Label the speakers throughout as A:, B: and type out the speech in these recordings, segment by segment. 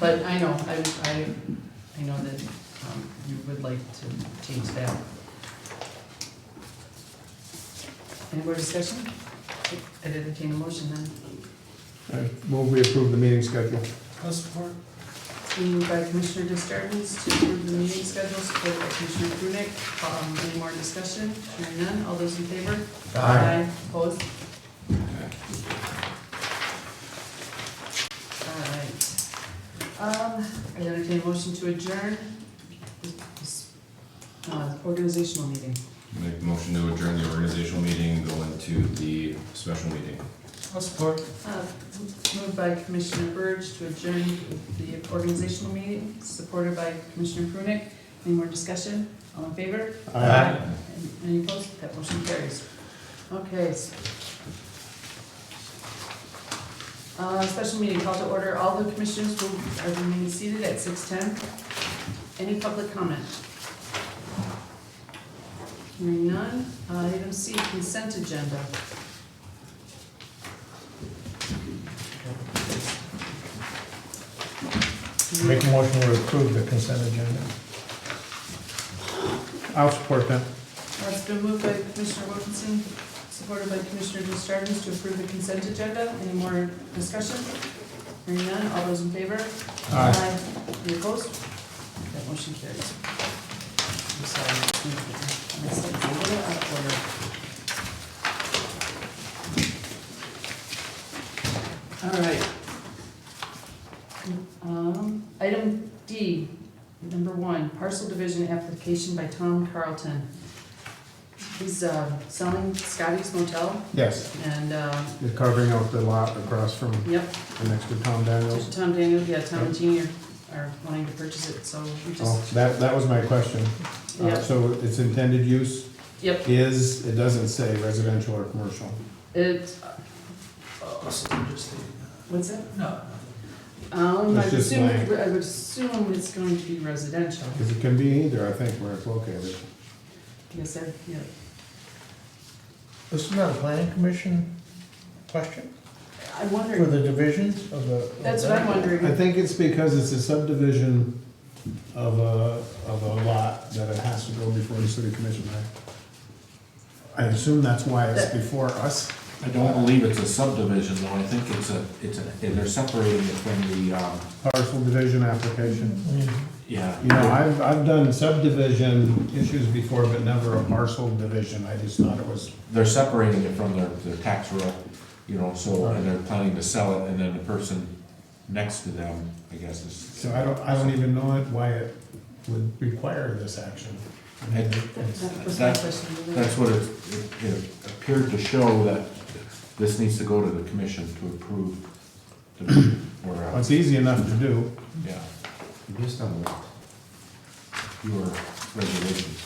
A: But I know, I, I, I know that um, you would like to change that. Any more discussion? I'd entertain a motion then.
B: I move we approve the meeting schedule.
C: I'll support.
A: It's been moved by Commissioner Justardens to approve the meeting schedule, supported by Commissioner Prunick. Um, Any more discussion? Hearing none, all those in favor? Opposed? All right. Um, I entertain a motion to adjourn this- this, uh, organizational meeting.
D: Make a motion to adjourn the organizational meeting, go into the special meeting.
C: I'll support.
A: Uh, Moved by Commissioner Burge to adjourn the organizational meeting, supported by Commissioner Prunick. Any more discussion? All in favor?
B: Uh,
A: Any opposed? That motion carries. Okay. s- Uh, special meeting called to order. All the commissioners will are remaining seated at six ten. Any public comment? Hearing none. Uh, item C, consent agenda.
B: Make a motion to approve the consent agenda. I'll support that.
A: Uh, It's been moved by Commissioner Wilkinson, supported by Commissioner Justardens to approve the consent agenda. Any more discussion? Hearing none, all those in favor? Any opposed? That motion carries. I'm sorry. I messed up a little out of order. All right. Um, Item D, number one, parcel division application by Tom Carlton. He's uh, selling Scotty's Motel
B: Yes,
A: and, uh,
B: you're carving out the lot across from
A: yep,
B: the next to Tom Daniels.
A: Tom Daniel, yeah, Tom and Jean are- are wanting to purchase it, so we
B: Oh,
A: just,
B: that, that was my question. Uh,
A: yeah.
B: So its intended use
A: Yep,
B: is, it doesn't say residential or commercial.
A: it, what's it?
C: No.
A: Um, I
B: That's
A: would
B: just
A: assume,
B: my-
A: I would assume it's going to be residential.
B: Because it can be either, I think, where it's located.
A: Yes, sir, yeah.
E: This is not a planning commission question
A: I
E: for
A: wonder,
E: the divisions of the. of
A: that's what I'm
E: that?
B: I
A: wondering.
B: think it's because it's a subdivision of a, of a lot that it has to go before the city commission, right? I assume that's why it's before us.
F: I don't believe it's a subdivision, though, I think it's a, it's a, they're separating it from the, um,
B: Parcel division application.
F: yeah.
B: You know, I've, I've done subdivision issues before, but never a parcel division, I just thought it was,
F: They're separating it from their, their tax roll, you know, so, and they're planning to sell it, and then the person next to them, I guess, is.
B: so I don't, I don't even know it, why it would require this action. I mean,
F: It-
A: That that was my
F: That-
A: question.
F: That's what it, it- it appeared to show, that this needs to go to the commission to approve. the- Or, uh,
B: It's easy enough to do.
F: yeah,
D: Based on what?
F: your regulations,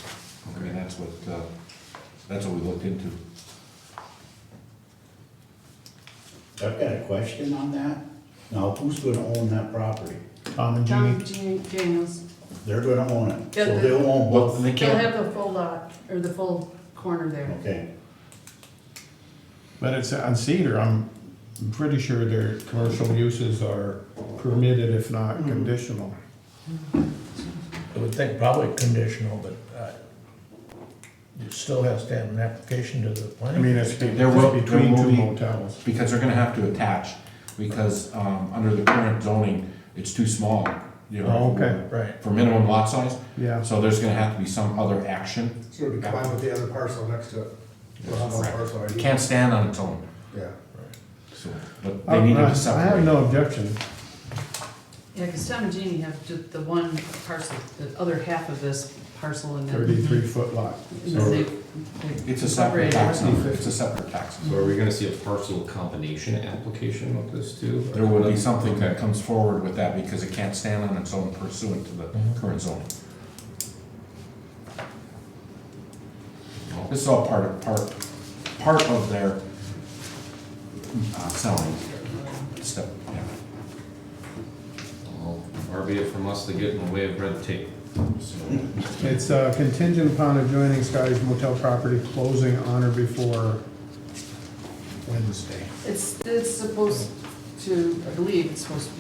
F: I mean, that's what, uh, that's what we looked into.
G: I've got a question on that. Now, who's gonna own that property?
B: Tom and Jeannie,
A: Tom Jean- Daniels,
G: They're gonna own it,
A: Yeah,
G: so
A: they-
G: they'll own
F: Well,
G: both,
F: they
A: they'll
F: can't,
A: have the full lot, or the full corner there.
G: okay?
B: but it's on Cedar, I'm pretty sure their commercial uses are permitted if not conditional.
E: I would think probably conditional, but uh, it still has to have an application to the
B: I
E: planning.
B: mean, it's be-
F: There will-
B: it's between
F: there will
B: two
F: be-
B: motels.
F: because they're gonna have to attach, because, um, under the current zoning, it's too small, you know.
B: Oh, okay.
E: Right.
F: For minimum lot size,
B: Yeah,
F: so there's gonna have to be some other action,
H: So it'd combine with the other parcel next to it. We'll have one parcel
F: it
H: ID.
F: can't stand on its own,
H: Yeah.
F: so, but
B: I
F: they needed to
B: Uh, I have
F: separate.
B: no objection.
A: Yeah, because Tom and Jeannie have ju- the one parcel, the other half of this parcel and then.
B: Thirty-three foot lot.
A: And
B: So-
A: they- they
F: It's a
A: separated.
F: separate tax number, it's a separate tax number.
D: So are we gonna see a parcel combination application with this too?
F: There will be something that comes forward with that, because it can't stand on its own pursuant to the
B: Mm-hmm.
F: current zoning. This is all part of, part, part of their uh, selling step, yeah.
D: Well, Far be it from us to get in the way of red tape.
B: It's uh, contingent upon adjoining Scotty's motel property closing on or before Wednesday.
A: It's, it's supposed to, I believe it's supposed to be